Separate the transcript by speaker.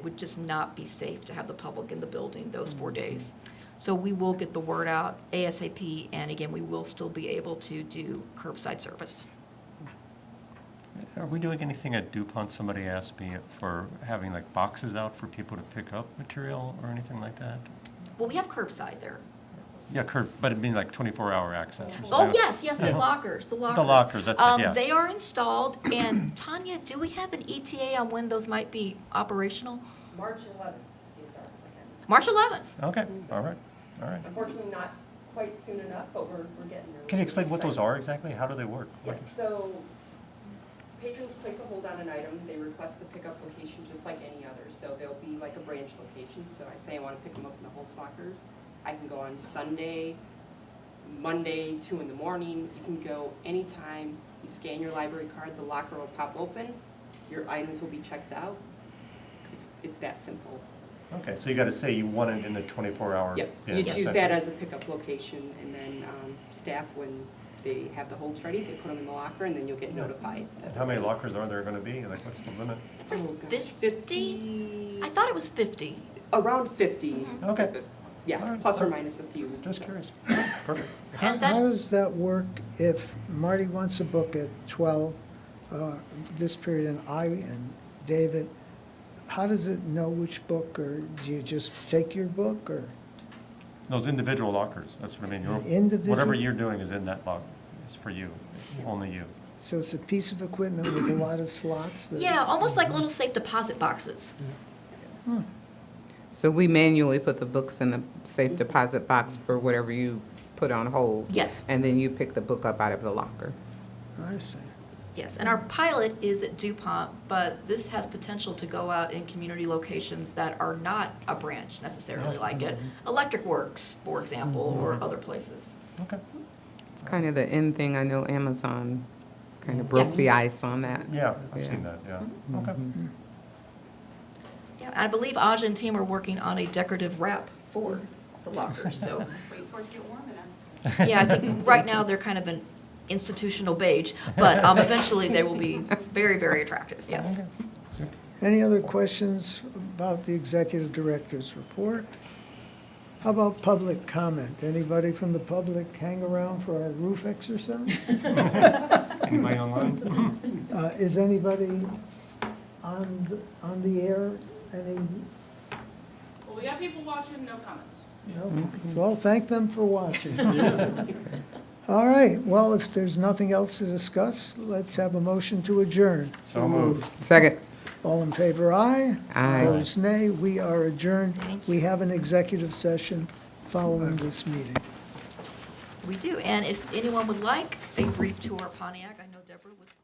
Speaker 1: It would just not be safe to have the public in the building those four
Speaker 2: Mm-hmm.
Speaker 1: days. So we will get the word out ASAP, and again, we will still be able to do curbside service.
Speaker 3: Are we doing anything at DuPont? Somebody asked me for having like boxes out for people to pick up material or anything like that?
Speaker 1: Well, we have curbside there.
Speaker 3: Yeah, curb, but it'd be like 24-hour access or something.
Speaker 1: Oh, yes, yes, the
Speaker 3: Yeah.
Speaker 1: lockers, the lockers.
Speaker 3: lockers, that's it,
Speaker 1: Um,
Speaker 3: yeah.
Speaker 1: They are installed, and Tanya, do we have an ETA on when those might be operational?
Speaker 2: March 11th is our plan.
Speaker 1: March 11th.
Speaker 3: Okay, all right, all right.
Speaker 2: Unfortunately, not quite soon enough, but we're, we're getting there.
Speaker 3: Can you explain what those
Speaker 2: Excited.
Speaker 3: are exactly? How do they work? What-
Speaker 2: Yes, so patrons place a hold on an item, they request the pickup location just like any other. So there'll be like a branch location, so I say I want to pick them up in the Holtz lockers. I can go on Sunday, Monday, two in the morning, you can go anytime. You scan your library card, the locker will pop open, your items will be checked out. It's, it's that simple.
Speaker 3: Okay, so you got to say you want it in the 24-hour.
Speaker 2: Yep,
Speaker 3: yeah,
Speaker 2: you choose
Speaker 3: essentially.
Speaker 2: that as a pickup location, and then um, staff, when they have the holds ready, they put them in the locker, and then you'll get notified.
Speaker 3: And how many lockers are there going to be? Like, what's the limit?
Speaker 1: There's
Speaker 2: Oh, gosh,
Speaker 1: 50? I thought Mm-hmm. it was 50.
Speaker 2: Around 50,
Speaker 3: Okay,
Speaker 2: yeah,
Speaker 3: Alright,
Speaker 2: plus or
Speaker 3: alright.
Speaker 2: minus a few.
Speaker 3: just curious. Perfect.
Speaker 4: How
Speaker 1: And that-
Speaker 4: how does that work if Marty wants to book at 12, uh, this period, and I and David, how does it know which book, or do you just take your book, or?
Speaker 3: Those individual lockers, that's what I mean. Your- Whatever
Speaker 4: Individual-
Speaker 3: you're doing is in that locker. It's for you, only you.
Speaker 4: So it's a piece of equipment with a lot of slots that?
Speaker 1: Yeah, almost like little safe deposit boxes.
Speaker 2: Mm-hmm.
Speaker 5: So we manually put the books in the safe deposit box for whatever you put on hold?
Speaker 1: Yes.
Speaker 5: And then you pick the book up out of the locker?
Speaker 4: I see.
Speaker 1: Yes, and our pilot is at DuPont, but this has potential to go out in community locations that are not a branch necessarily like it. Electric Works, for example, or other places.
Speaker 3: Okay,
Speaker 5: It's kind of the end thing. I know Amazon kind of broke the
Speaker 1: Yes.
Speaker 5: ice on that.
Speaker 3: yeah, I've seen
Speaker 5: Yeah.
Speaker 3: that, yeah. Okay.
Speaker 1: Yeah, I believe Aja and team are working on a decorative wrap for the lockers, so.
Speaker 6: Wait for it to get warm and I'm.
Speaker 1: Yeah, I think right now they're kind of an institutional beige, but um, eventually they will be very, very attractive, yes.
Speaker 3: Okay.
Speaker 4: Any other questions about the executive director's report? How about public comment? Anybody from the public hang around for our roof exercise?
Speaker 3: Anybody online?
Speaker 4: Uh, Is anybody on, th- on the air, any,
Speaker 7: Well, we got people watching, no comments.
Speaker 4: no? Well, thank them for watching. All right, well, if there's nothing else to discuss, let's have a motion to adjourn.
Speaker 3: So moved.
Speaker 5: Second.
Speaker 4: All in favor, aye.
Speaker 5: Aye.
Speaker 4: Opposed, nay. We are adjourned.
Speaker 1: Thank
Speaker 4: We have an executive session following this meeting.
Speaker 1: We do, and if anyone would like a brief tour of Pontiac, I know Deborah would